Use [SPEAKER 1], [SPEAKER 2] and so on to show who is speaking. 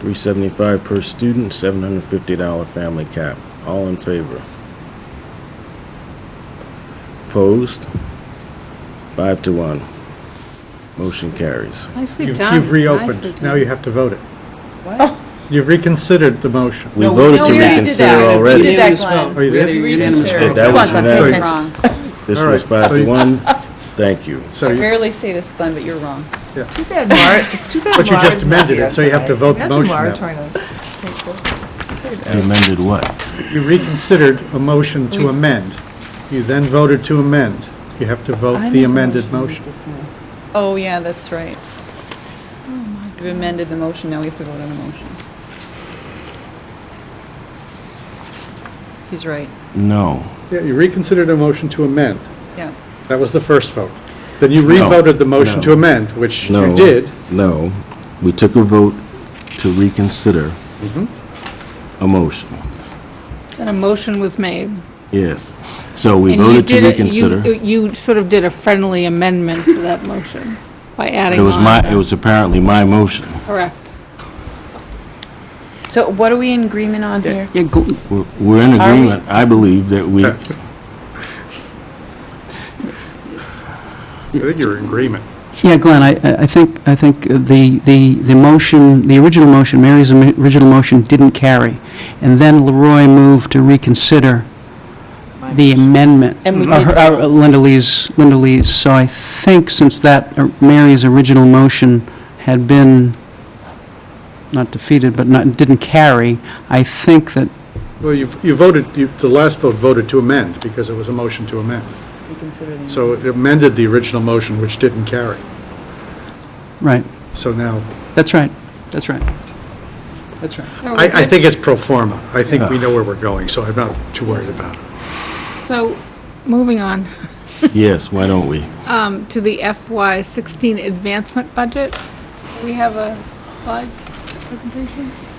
[SPEAKER 1] 375 per student, $750 family cap. All in favor? Opposed? Five to one. Motion carries.
[SPEAKER 2] Nicely
[SPEAKER 3] You've
[SPEAKER 2] done.
[SPEAKER 3] you've
[SPEAKER 2] Nicely
[SPEAKER 3] reopened. Now
[SPEAKER 2] done.
[SPEAKER 3] you have to vote it.
[SPEAKER 2] What?
[SPEAKER 3] You've reconsidered the motion.
[SPEAKER 1] We
[SPEAKER 4] No, we-
[SPEAKER 1] voted
[SPEAKER 2] no,
[SPEAKER 1] to
[SPEAKER 2] we already did
[SPEAKER 1] reconsider
[SPEAKER 2] that. We
[SPEAKER 1] already.
[SPEAKER 2] did that,
[SPEAKER 4] Unanimous
[SPEAKER 2] Glenn.
[SPEAKER 4] vote.
[SPEAKER 3] Oh, you
[SPEAKER 4] We had a
[SPEAKER 3] did?
[SPEAKER 4] unanimous
[SPEAKER 2] Reconsider.
[SPEAKER 4] vote.
[SPEAKER 1] That
[SPEAKER 2] Come
[SPEAKER 1] was
[SPEAKER 2] on, Buck, that's
[SPEAKER 3] unanimous.
[SPEAKER 2] wrong.
[SPEAKER 1] This
[SPEAKER 3] All
[SPEAKER 1] was
[SPEAKER 3] right,
[SPEAKER 1] five
[SPEAKER 3] so
[SPEAKER 1] to
[SPEAKER 3] you-
[SPEAKER 1] one. Thank you.
[SPEAKER 3] So
[SPEAKER 2] I
[SPEAKER 3] you-
[SPEAKER 2] rarely say this, Glenn, but you're wrong.
[SPEAKER 5] It's too bad Mar, it's too bad
[SPEAKER 3] But you
[SPEAKER 5] Mara's
[SPEAKER 3] just
[SPEAKER 5] not
[SPEAKER 3] amended
[SPEAKER 5] here
[SPEAKER 3] it, so you have to
[SPEAKER 5] tonight.
[SPEAKER 3] vote the
[SPEAKER 5] Imagine
[SPEAKER 3] motion
[SPEAKER 5] Mara
[SPEAKER 3] now.
[SPEAKER 5] trying to take this.
[SPEAKER 1] Amended what?
[SPEAKER 3] you reconsidered a motion to amend. You then voted to amend. You have to vote the amended motion.
[SPEAKER 2] Oh, yeah, that's right. Oh, We've amended the motion, now we have to vote on the motion. He's right,
[SPEAKER 1] No.
[SPEAKER 3] Yeah, you reconsidered a motion to amend.
[SPEAKER 2] yeah.
[SPEAKER 3] That was the first vote. Then you
[SPEAKER 1] No,
[SPEAKER 3] revoted the motion
[SPEAKER 1] no.
[SPEAKER 3] to amend, which
[SPEAKER 1] No.
[SPEAKER 3] you did.
[SPEAKER 1] No. We took a vote to reconsider
[SPEAKER 3] Mm-hmm.
[SPEAKER 1] a motion.
[SPEAKER 6] And a motion was made.
[SPEAKER 1] Yes. So we
[SPEAKER 6] and you
[SPEAKER 1] voted to
[SPEAKER 6] did it- you-
[SPEAKER 1] reconsider.
[SPEAKER 6] You sort of did a friendly amendment to that motion by adding
[SPEAKER 1] It
[SPEAKER 6] on.
[SPEAKER 1] was my,
[SPEAKER 6] the-
[SPEAKER 1] it was apparently my motion.
[SPEAKER 6] Correct.
[SPEAKER 4] So what are we in agreement on here?
[SPEAKER 1] Yeah, go- We're we're in
[SPEAKER 4] Are we-
[SPEAKER 1] agreement, I believe, that we,
[SPEAKER 3] I think you're in agreement.
[SPEAKER 7] Yeah, Glenn, I, I I think, I think the, the, the motion, the original motion, Mary's ami- original motion didn't carry. And then Leroy moved to reconsider the amendment.
[SPEAKER 2] And we
[SPEAKER 7] Uh,
[SPEAKER 2] did-
[SPEAKER 7] her- uh, Linda Lee's, Linda Lee's. So I think since that, uh, Mary's original motion had been, not defeated, but not, didn't carry, I think that
[SPEAKER 3] Well, you you voted, you- the last vote voted to amend, because it was a motion to amend. So it amended the original motion, which didn't carry.
[SPEAKER 7] Right,
[SPEAKER 3] So now,
[SPEAKER 7] that's right, that's right, that's right.
[SPEAKER 3] I I think it's pro forma. I think we know where we're going, so I'm not too worried about it.
[SPEAKER 6] So, moving on
[SPEAKER 1] yes, why don't we?
[SPEAKER 6] um, to the FY16 advancement budget. We have a slide presentation?